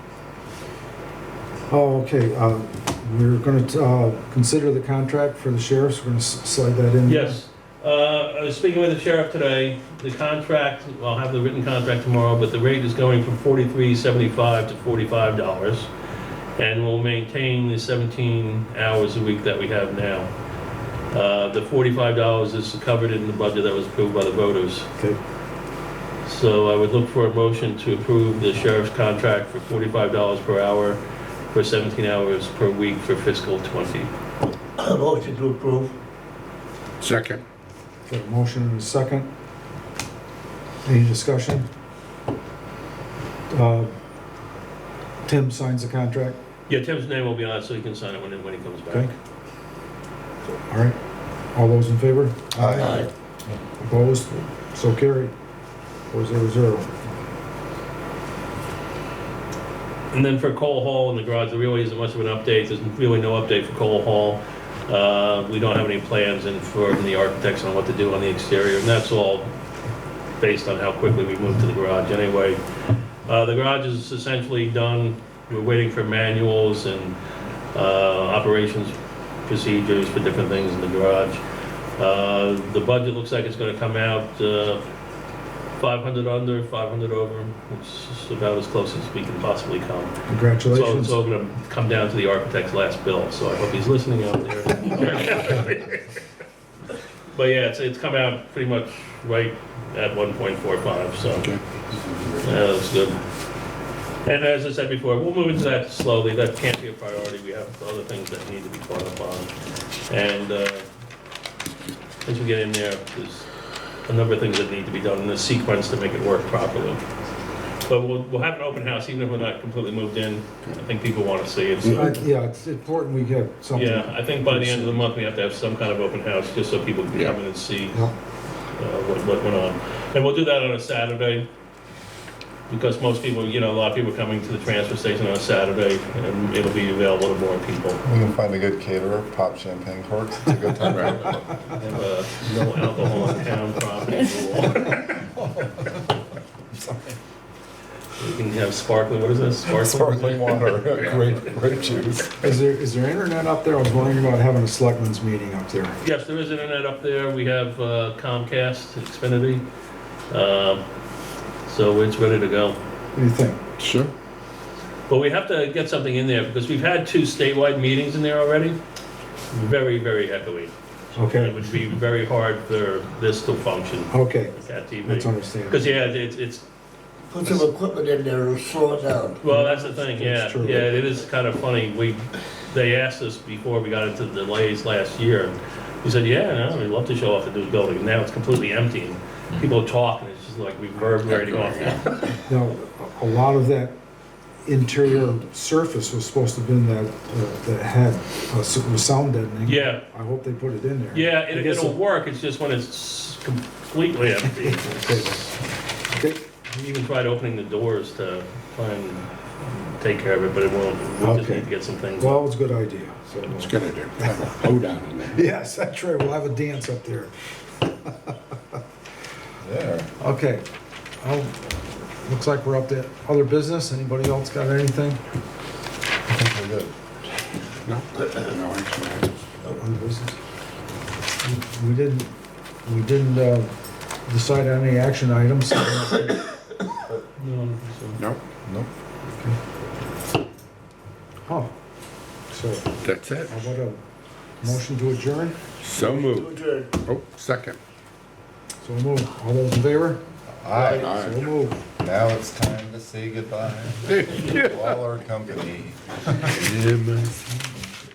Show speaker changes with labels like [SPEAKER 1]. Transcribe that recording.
[SPEAKER 1] Oh, okay, uh, we're gonna, uh, consider the contract for the sheriffs, we're gonna s- slide that in.
[SPEAKER 2] Yes, uh, I was speaking with the sheriff today, the contract, I'll have the written contract tomorrow, but the rate is going from forty-three seventy-five to forty-five dollars. And we'll maintain the seventeen hours a week that we have now. Uh, the forty-five dollars is covered in the budget that was approved by the voters.
[SPEAKER 1] Okay.
[SPEAKER 2] So I would look for a motion to approve the sheriff's contract for forty-five dollars per hour for seventeen hours per week for fiscal twenty.
[SPEAKER 3] Motion to approve.
[SPEAKER 4] Second.
[SPEAKER 1] Got a motion and a second. Any discussion? Uh, Tim signs the contract,
[SPEAKER 2] Yeah, Tim's name will be on it, so he can sign it when, when he comes back.
[SPEAKER 1] okay? All right, all those in favor?
[SPEAKER 3] Aye.
[SPEAKER 1] Opposed? So carried. Four zero zero.
[SPEAKER 2] And then for Cole Hall in the garage, there really isn't much of an update. There's really no update for Cole Hall. Uh, we don't have any plans in for the architects on what to do on the exterior, and that's all based on how quickly we move to the garage anyway. Uh, the garage is essentially done. We're waiting for manuals and, uh, operations procedures for different things in the garage. Uh, the budget looks like it's gonna come out, uh, 500 under, 500 over, which is about as close as we can possibly come. So
[SPEAKER 1] Congratulations.
[SPEAKER 2] it's all going to come down to the architect's last bill, so I hope he's listening out there. But yeah, it's, it's come out pretty much right at 1.45, so
[SPEAKER 4] Okay.
[SPEAKER 2] yeah, that's good. And as I said before, we'll move into that slowly, that can't be a priority, we have other things that need to be caught up on. And uh, as we get in there, there's a number of things that need to be done in the sequence to make it work properly. But we'll, we'll have an open house, even if we're not completely moved in, I think people want to see it.
[SPEAKER 1] I-
[SPEAKER 2] so-
[SPEAKER 1] Uh, Yeah, it's important we get something.
[SPEAKER 2] Yeah, I think by the end of the month, we have to have some kind of open house, just so people can come in and see
[SPEAKER 1] Yeah.
[SPEAKER 2] uh, what, what went on. And we'll do that on a Saturday, because most people, you know, a lot of people are coming to the transfer station on a Saturday, and it'll be available to more people.
[SPEAKER 5] We can find a good caterer, pop champagne corks, it's a good time.
[SPEAKER 2] Have uh, no alcohol on town property rule. We can have sparkling, what is this?
[SPEAKER 5] Sparkling water, grape, grape juice.
[SPEAKER 1] Is there, is there internet up there? I was wondering about having a selectmen's meeting up there.
[SPEAKER 2] Yes, there is internet up there. We have uh, Comcast, Xfinity. Um, So it's ready to go.
[SPEAKER 1] What do you think?
[SPEAKER 4] Sure.
[SPEAKER 2] But we have to get something in there because we've had two statewide meetings in there already. Very, very heavily. It
[SPEAKER 1] Okay,
[SPEAKER 2] would be very hard for this to function
[SPEAKER 1] okay,
[SPEAKER 2] with that
[SPEAKER 1] that's
[SPEAKER 2] TV.
[SPEAKER 1] understandable.
[SPEAKER 2] Because, yeah, it's, it's,
[SPEAKER 3] Put some equipment in there to slow it down.
[SPEAKER 2] well, that's the thing, yeah.
[SPEAKER 1] That's true.
[SPEAKER 2] Yeah, it is kind of funny. We, they asked us before we got into the delays last year. and We said, yeah, no, we'd love to show off the new building. And Now it's completely empty and people talk and it's just like reverberating off.
[SPEAKER 1] Now, a a lot of that interior surface was supposed to have been that, uh, that had, uh, s- was sound deadening.
[SPEAKER 2] Yeah,
[SPEAKER 1] I hope they put it in there.
[SPEAKER 2] yeah,
[SPEAKER 1] I
[SPEAKER 2] it-
[SPEAKER 1] guess
[SPEAKER 2] it'll work. It's just when it's completely empty. it's-
[SPEAKER 1] Okay,
[SPEAKER 2] We even tried opening the doors to try and take care of it, but it won't. We'll just
[SPEAKER 1] Okay.
[SPEAKER 2] need to get some things.
[SPEAKER 1] Well, it's a good idea, so.
[SPEAKER 4] It's gonna do. Hold down in there.
[SPEAKER 1] Yes, that's right, we'll have a dance up there.
[SPEAKER 5] There.
[SPEAKER 1] Okay, oh, looks like we're up to other business. Anybody else got anything?
[SPEAKER 5] I think we're good.
[SPEAKER 4] No, no, actually,
[SPEAKER 1] Other business? We- We didn't, we didn't, uh, decide on any action items.
[SPEAKER 2] No, so-
[SPEAKER 4] no,
[SPEAKER 5] Nope.
[SPEAKER 1] Huh. Oh, So,
[SPEAKER 4] that's it.
[SPEAKER 1] how about a motion to adjourn?
[SPEAKER 4] So
[SPEAKER 3] To
[SPEAKER 4] moved.
[SPEAKER 3] adjourn.
[SPEAKER 4] Oh, second.
[SPEAKER 1] So moved. All those in favor?
[SPEAKER 5] All right,
[SPEAKER 4] All
[SPEAKER 1] So
[SPEAKER 4] right.
[SPEAKER 1] moved.
[SPEAKER 5] now it's time to say goodbye to all our company.
[SPEAKER 4] Yeah, man.